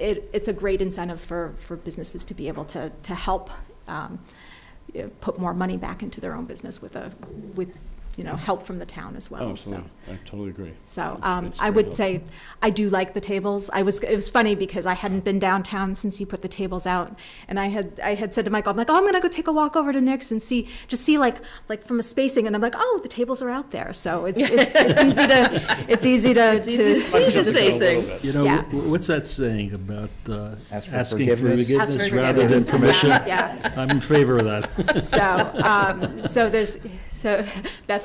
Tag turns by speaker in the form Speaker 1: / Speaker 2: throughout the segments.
Speaker 1: it, it's a great incentive for, for businesses to be able to, to help um, you know, put more money back into their own business with a, with, you know, help from the town as well.
Speaker 2: Oh,
Speaker 1: So,
Speaker 2: absolutely. I totally agree.
Speaker 1: so
Speaker 2: It's-
Speaker 1: um,
Speaker 2: it's
Speaker 1: I
Speaker 2: very
Speaker 1: would
Speaker 2: helpful.
Speaker 1: say, I do like the tables. I was, it was funny because I hadn't been downtown since you put the tables out. And I had, I had said to Michael, I'm like, oh, I'm gonna go take a walk over to Nick's and see, just see like, like from a spacing. And I'm like, oh, the tables are out there. So it's, it's it's easy to, it's easy to, to
Speaker 2: I'm jumping
Speaker 3: Just
Speaker 2: a little
Speaker 3: facing.
Speaker 2: bit.
Speaker 4: You know,
Speaker 1: Yeah.
Speaker 4: wh- what's that saying about uh,
Speaker 5: Ask for
Speaker 4: asking for
Speaker 5: forgiveness?
Speaker 3: Ask for
Speaker 4: forgiveness rather than
Speaker 3: forgiveness.
Speaker 4: permission?
Speaker 1: Yeah, yeah.
Speaker 4: I'm in favor of that.
Speaker 1: So, um, so there's, so Beth,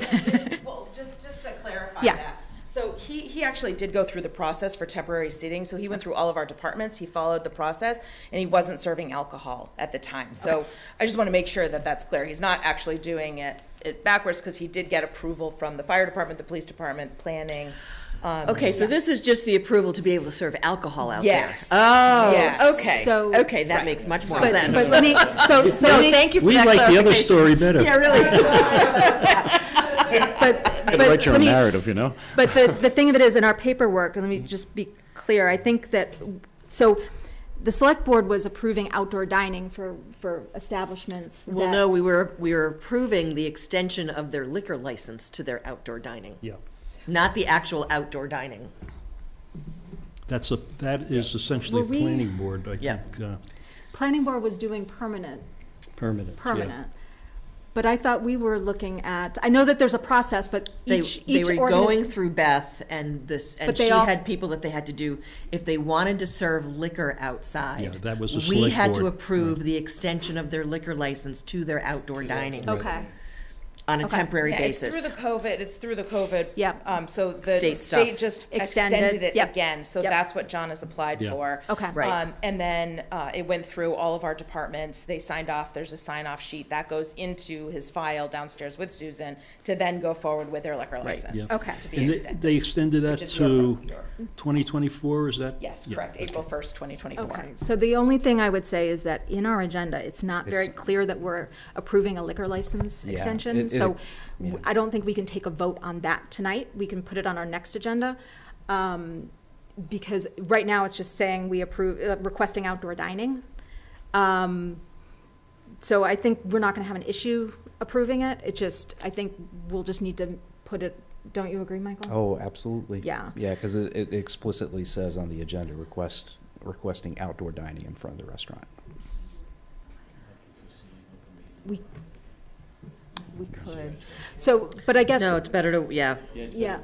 Speaker 6: Well, just, just to clarify
Speaker 1: Yeah.
Speaker 6: that. So he, he actually did go through the process for temporary seating, so he went through all of our departments, he followed the process, and he wasn't serving alcohol at the time. So I just want to make sure that that's clear. He's not actually doing it, it backwards, because he did get approval from the fire department, the police department, planning. um,
Speaker 3: Okay, so this is just the approval to be able to serve alcohol out
Speaker 6: Yes.
Speaker 3: there. Oh,
Speaker 6: Yes.
Speaker 3: okay.
Speaker 1: So-
Speaker 3: okay, that makes much more
Speaker 1: but,
Speaker 3: sense.
Speaker 1: but let me, so,
Speaker 3: no,
Speaker 1: so, let me-
Speaker 3: thank you for
Speaker 4: We
Speaker 3: that
Speaker 4: like the other
Speaker 3: clarification.
Speaker 4: story better.
Speaker 3: Yeah, really.
Speaker 1: but,
Speaker 2: You
Speaker 1: but.
Speaker 2: gotta write your
Speaker 1: let
Speaker 2: own
Speaker 1: me-
Speaker 2: narrative, you know?
Speaker 1: But the, the thing of it is, in our paperwork, and let me just be clear, I think that, so the select board was approving outdoor dining for, for establishments that.
Speaker 3: Well, no, we were, we were approving the extension of their liquor license to their outdoor dining,
Speaker 4: Yeah,
Speaker 3: not the actual outdoor dining.
Speaker 4: that's a, that is essentially a
Speaker 1: Were we-
Speaker 4: planning board, I
Speaker 3: Yeah.
Speaker 4: think, uh,
Speaker 1: Planning board was doing permanent
Speaker 4: permanent. yeah.
Speaker 1: permanent. But I thought we were looking at, I know that there's a process, but
Speaker 3: They,
Speaker 1: each,
Speaker 3: they
Speaker 1: each
Speaker 3: were
Speaker 1: organis-
Speaker 3: going through Beth and this, and
Speaker 1: But they
Speaker 3: she
Speaker 1: all-
Speaker 3: had people that they had to do, if they wanted to serve liquor outside.
Speaker 4: Yeah, that was a
Speaker 3: We
Speaker 4: select
Speaker 3: had to
Speaker 4: board,
Speaker 3: approve the extension of their liquor license to their outdoor dining
Speaker 1: Okay,
Speaker 3: on a
Speaker 1: Okay.
Speaker 3: temporary
Speaker 6: Yeah, it's
Speaker 3: basis.
Speaker 6: through the COVID, it's through the COVID.
Speaker 1: Yep.
Speaker 6: Um, so the
Speaker 3: State stuff.
Speaker 6: state just
Speaker 1: Extended,
Speaker 6: extended it
Speaker 1: yep,
Speaker 6: again, so
Speaker 1: yep.
Speaker 6: that's what John has applied
Speaker 4: Yeah.
Speaker 6: for.
Speaker 1: Okay.
Speaker 3: Right.
Speaker 6: Um, and then, uh, it went through all of our departments, they signed off, there's a sign-off sheet, that goes into his file downstairs with Susan to then go forward with their liquor license.
Speaker 1: Okay.
Speaker 6: To be
Speaker 4: And they-
Speaker 6: extended,
Speaker 4: they extended that
Speaker 6: which is your,
Speaker 4: to
Speaker 6: your,
Speaker 4: 2024, is that?
Speaker 6: yes,
Speaker 4: Yeah.
Speaker 6: correct, April first, twenty twenty-four.
Speaker 1: okay. So the only thing I would say is that in our agenda, it's not very
Speaker 5: It's-
Speaker 1: clear that we're approving a liquor license
Speaker 5: Yeah,
Speaker 1: extension.
Speaker 5: it- it-
Speaker 1: So
Speaker 5: yeah.
Speaker 1: I don't think we can take a vote on that tonight. We can put it on our next agenda. um, Because right now, it's just saying we approve, uh, requesting outdoor dining. Um, So I think we're not going to have an issue approving it. It just, I think we'll just need to put it, don't you agree, Michael?
Speaker 5: Oh, absolutely.
Speaker 1: Yeah.
Speaker 5: Yeah, because it it explicitly says on the agenda, request, requesting outdoor dining in front of the restaurant.
Speaker 1: We, we could. So, but I guess,
Speaker 3: No, it's better to, yeah.
Speaker 1: yeah,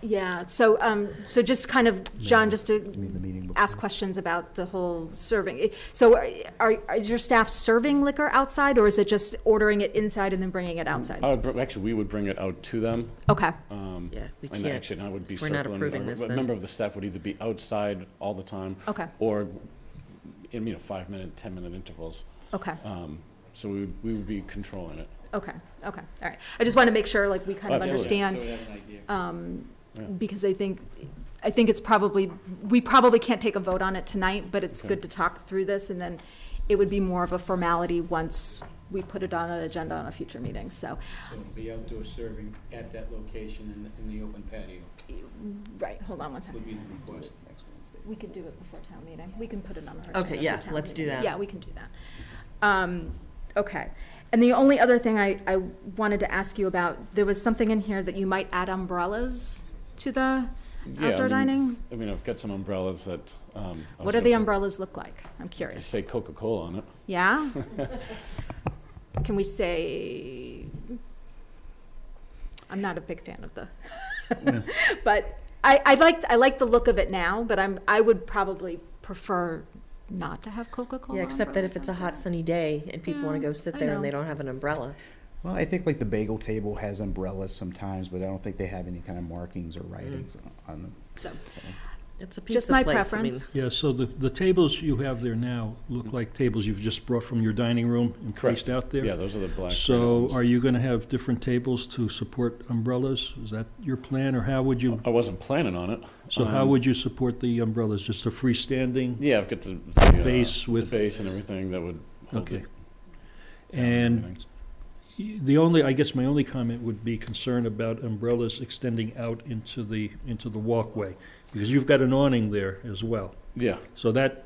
Speaker 1: yeah, so, um, so just kind of, John, just
Speaker 5: You mean the
Speaker 1: to
Speaker 5: meeting before?
Speaker 1: ask questions about the whole serving. It- So are- are, are, is your staff serving liquor outside, or is it just ordering it inside and then bringing it outside?
Speaker 2: I would, br- actually, we would bring it out to them.
Speaker 1: Okay,
Speaker 2: um,
Speaker 3: Yeah, we
Speaker 2: And
Speaker 3: can't-
Speaker 2: actually, I would be
Speaker 3: we're not
Speaker 2: circling.
Speaker 3: approving
Speaker 2: a-
Speaker 3: this
Speaker 2: A
Speaker 3: then.
Speaker 2: member of the staff would either be outside all the time.
Speaker 1: Okay.
Speaker 2: Or in, you know, five-minute, 10-minute intervals.
Speaker 1: okay,
Speaker 2: Um, So we would, we would be controlling it.
Speaker 1: okay, okay, all right. I just want to make sure, like, we kind of
Speaker 2: Absolutely.
Speaker 1: understand. um,
Speaker 2: Yeah.
Speaker 1: because I think, I think it's probably, we probably can't take a vote on it tonight, but it's good to talk through this, and then it would be more of a formality once we put it on an agenda on a future meeting, so,
Speaker 7: So it'll be outdoor serving at that location in, the- in the open patio
Speaker 1: right, hold on one
Speaker 7: would
Speaker 1: second.
Speaker 7: be the request. Next Wednesday.
Speaker 1: We could do it before town meeting, we can put it on our agenda.
Speaker 3: Okay, yeah,
Speaker 1: for town
Speaker 3: let's do
Speaker 1: meeting.
Speaker 3: that.
Speaker 1: Yeah, we can do that. Um, okay, and the only other thing I, I wanted to ask you about, there was something in here that you might add umbrellas to the
Speaker 2: Yeah, I
Speaker 1: outdoor
Speaker 2: mean,
Speaker 1: dining?
Speaker 2: I mean, I've got some umbrellas that. um, I
Speaker 1: What
Speaker 2: was
Speaker 1: do
Speaker 2: gonna
Speaker 1: the
Speaker 2: put-
Speaker 1: umbrellas look like? I'm
Speaker 2: they
Speaker 1: curious.
Speaker 2: Say Coca-Cola on it.
Speaker 1: Yeah? Can we say, I'm not a big fan of the, but I, I like, I like the look of it now, but I'm, I would probably prefer not to have Coca-Cola.
Speaker 3: Yeah, except that if it's a hot sunny day and people want to
Speaker 1: Yeah,
Speaker 3: go sit
Speaker 1: I
Speaker 3: there and they
Speaker 1: know.
Speaker 3: don't have an umbrella.
Speaker 5: Well, I think like the bagel table has umbrellas sometimes, but I don't think they have any kind of markings or writings on them.
Speaker 1: So-
Speaker 5: so.
Speaker 3: It's a
Speaker 1: Just
Speaker 3: pizza
Speaker 1: my
Speaker 3: place, I mean.
Speaker 1: preference.
Speaker 4: Yeah, so the, the tables you have there now look like tables you've just brought from your dining room and placed out there?
Speaker 2: Yeah, those are the black.
Speaker 4: So
Speaker 2: ones.
Speaker 4: are you going to have different tables to support umbrellas? Is that your plan, or how would you,
Speaker 2: I wasn't planning on it.
Speaker 4: so how
Speaker 2: Um,
Speaker 4: would you support the umbrellas? Just a freestanding?
Speaker 2: Yeah, I've got the. the, uh,
Speaker 4: Base with-
Speaker 2: The base and everything that would hold
Speaker 4: Okay.
Speaker 2: it. down
Speaker 4: And
Speaker 2: everything.
Speaker 4: the only, I guess my only comment would be concern about umbrellas extending out into the, into the walkway, because you've got an awning there as well.
Speaker 2: Yeah.
Speaker 4: So that,